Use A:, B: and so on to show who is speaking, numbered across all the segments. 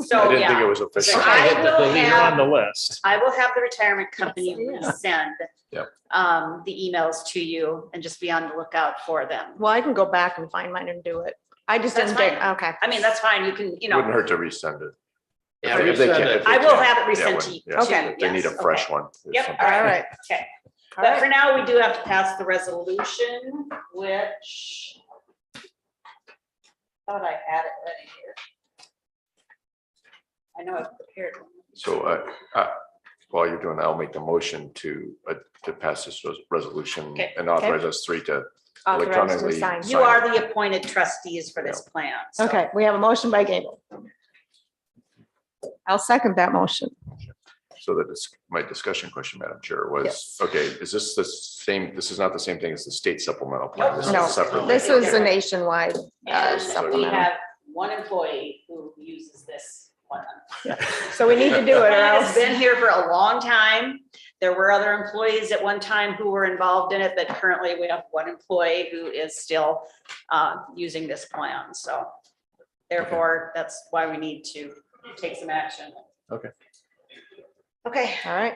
A: So,
B: didn't think it
A: yeah,
B: was official.
A: I
C: Hit the
A: will
C: delete on
A: have-
C: the list.
A: I will have the retirement company resend
B: Yep.
A: um, the emails to you and just be on the lookout for them.
D: Well, I can go back and find mine and do it. I just
A: That's
D: didn't think, okay.
A: I mean, that's fine. You can, you
B: Wouldn't
A: know,
B: hurt to resend it.
C: Yeah,
B: If they
C: resend
B: can-
C: it.
B: if they
A: I will
B: can.
A: have it
B: Yeah,
A: resent
B: when-
A: to you.
B: yes,
D: Okay.
B: if They need a
A: Yes,
B: fresh one. if
A: Yep,
B: something-
D: All right.
A: Okay, but
D: All right.
A: for now, we do have to pass the resolution, which thought I had it ready here. I know I've prepared one.
B: So uh, uh, while you're doing, that, I'll make the motion to, uh, to pass this res- resolution
A: Okay.
B: and authorize us three to
D: Authorized to
B: Electronically
D: sign.
A: You are the appointed trustees for this plan. so-
D: Okay, we have a motion by Gable. I'll second that motion.
B: So that is my discussion question, Madam Chair, was,
D: Yes.
B: okay, is this the same, this is not the same thing as the state supplemental plan? This is
D: No,
B: separate.
D: This is a nationwide. uh,
A: And we
D: supplemental.
A: have one employee who uses this one.
D: So we need to do it or
A: And It's
D: else.
A: been here for a long time. There were other employees at one time who were involved in it, but currently we have one employee who is still uh, using this plan, so. Therefore, that's why we need to take some action.
B: Okay.
A: Okay,
D: All right.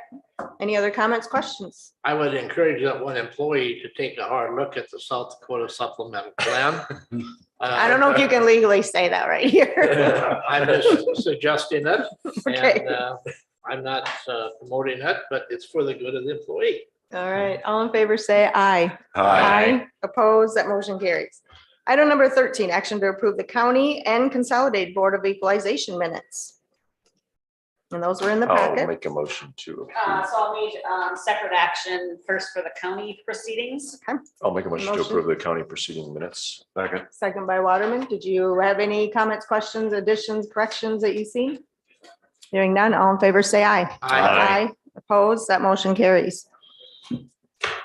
D: Any other comments, questions?
C: I would encourage that one employee to take a hard look at the South Dakota supplemental plan. Uh,
D: I don't know if you can legally say that right here.
C: I'm just suggesting it
D: Okay.
C: and uh, I'm not uh, promoting it, but it's for the good of the employee.
D: All right, all in favor, say aye. Opposed, that motion carries. Item number thirteen, action to approve the county and consolidated board of equalization minutes. And those were in the
B: I'll
D: packet.
B: make a motion to,
A: uh,
B: approve-
A: so I'll need um, separate action first for the county proceedings.
B: I'll make a motion to
D: Motion.
B: approve the county proceeding minutes. Second.
D: Second by Waterman. Did you have any comments, questions, additions, corrections that you see? Hearing none, all in favor, say aye.
C: I
B: Aye.
D: Opposed, that motion carries.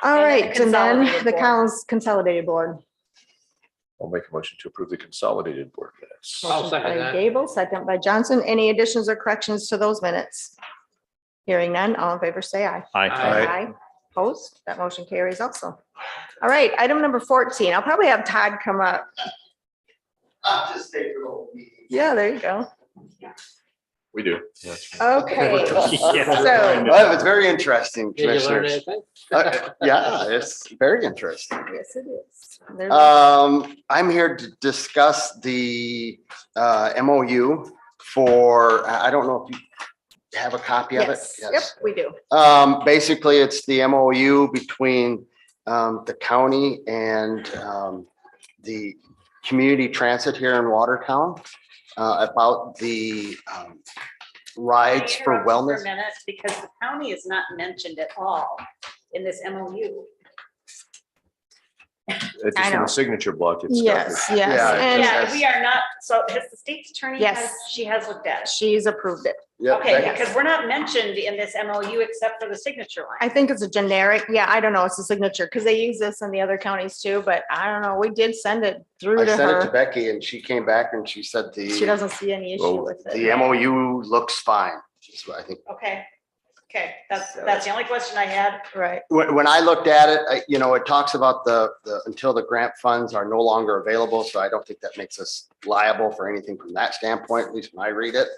D: All
A: And the
D: right, and then
A: consolidated
D: the
A: board.
D: council's consolidated board.
B: I'll make a motion to approve the consolidated board minutes.
C: I'll
D: Motion
C: second
D: by
C: that.
D: Gable, second by Johnson. Any additions or corrections to those minutes? Hearing none, all in favor, say aye.
C: Aye.
D: Opposed, that motion carries also. All right, item number fourteen, I'll probably have Todd come up.
E: I'll just take your old meeting.
D: Yeah, there you go.
B: We do. Yes.
D: Okay, so,
E: Well, Oh, it's very interesting,
C: Did you learn
E: commissioners.
C: anything?
E: Uh, Yeah, it's very interesting.
D: yes, it is. There's-
E: Um, I'm here to discuss the uh, MOU for, I I don't know if you have a copy of it.
D: Yes, yep, we do.
E: Um, basically, it's the MOU between, um, the county and, um, the community transit here in Watertown, uh, about the, um, rides
A: Can I
E: for
A: interrupt
E: wellness.
A: a minute? Because the county is not mentioned at all in this MOU.
B: It's
D: I
B: just in
D: know.
B: the signature block. it's got
D: Yes,
B: the-
D: yes,
E: Yeah,
D: and
A: Yeah, we are not, so has the state's attorney,
D: Yes.
A: has- she has looked at it.
D: she's approved it.
E: Yep,
A: Okay,
E: that-
A: because we're not mentioned in this MOU except for the signature
D: I
A: line.
D: think it's a generic, yeah, I don't know, it's a signature, because they use this in the other counties too, but I don't know, we did send it through
E: I
D: to
E: sent it to
D: her.
E: Becky and she came back and she said
D: She
E: the,
D: doesn't see any
B: Well,
D: issue with it.
E: the MOU looks fine. is what I think,
A: Okay, okay, that's, that's the only question I had.
D: Right,
E: when, when I looked at it, I, you know, it talks about the, the, until the grant funds are no longer available. So I don't think that makes us liable for anything from that standpoint, at least when I read it.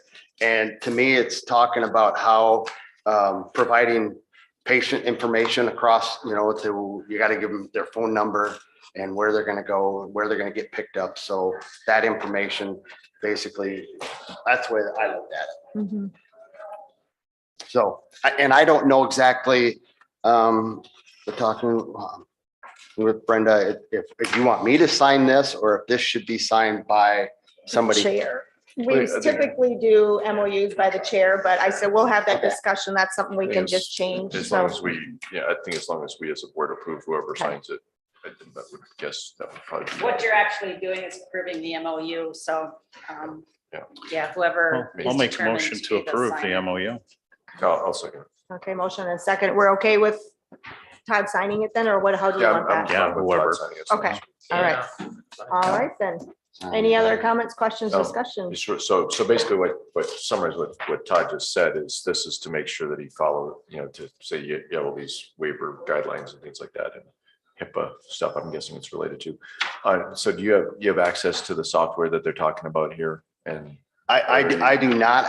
E: And to me, it's talking about how, um, providing patient information across, you know, to, you gotta give them their phone number and where they're gonna go, where they're gonna get picked up. So that information, basically, that's the way that I looked at it.
D: Mhm.
E: So, I- and I don't know exactly, um, we're talking um, with Brenda, if, if you want me to sign this or if this should be signed by somebody.
D: Chair.
B: Wait,
D: We
B: I think-
D: typically do MOUs by the chair, but I said, we'll have that discussion, that's something we
B: I think
D: can
B: it's-
D: just change,
B: As
D: so.
B: long as we, yeah, I think as long as we as a board approve whoever signs it, I think that would guess that would probably. be-
A: What you're actually doing is approving the MOU, so, um,
B: Yeah.
A: yeah, whoever.
B: Well,
A: is
F: I'll make a
A: determined
F: motion
A: be
F: to approve the
A: signer.
F: MOU.
B: I'll I'll second. it.
D: Okay, motion and second, we're okay with Todd signing it then, or what, how do you
B: Yeah,
D: want
B: I'm- I'm
D: that?
B: fine with Todd
F: whoever.
B: signing it, so
D: Okay.
B: it's-
D: All right, all right then, any other comments, questions,
B: No.
D: discussions?
B: Sure. So, so basically what, what summarize what, what Todd just said is this is to make sure that he follow, you know, to say you you have all these waiver guidelines and things like that and HIPAA stuff, I'm guessing it's related to. Uh, so do you have, you have access to the software that they're talking about here and
E: I, I, I do not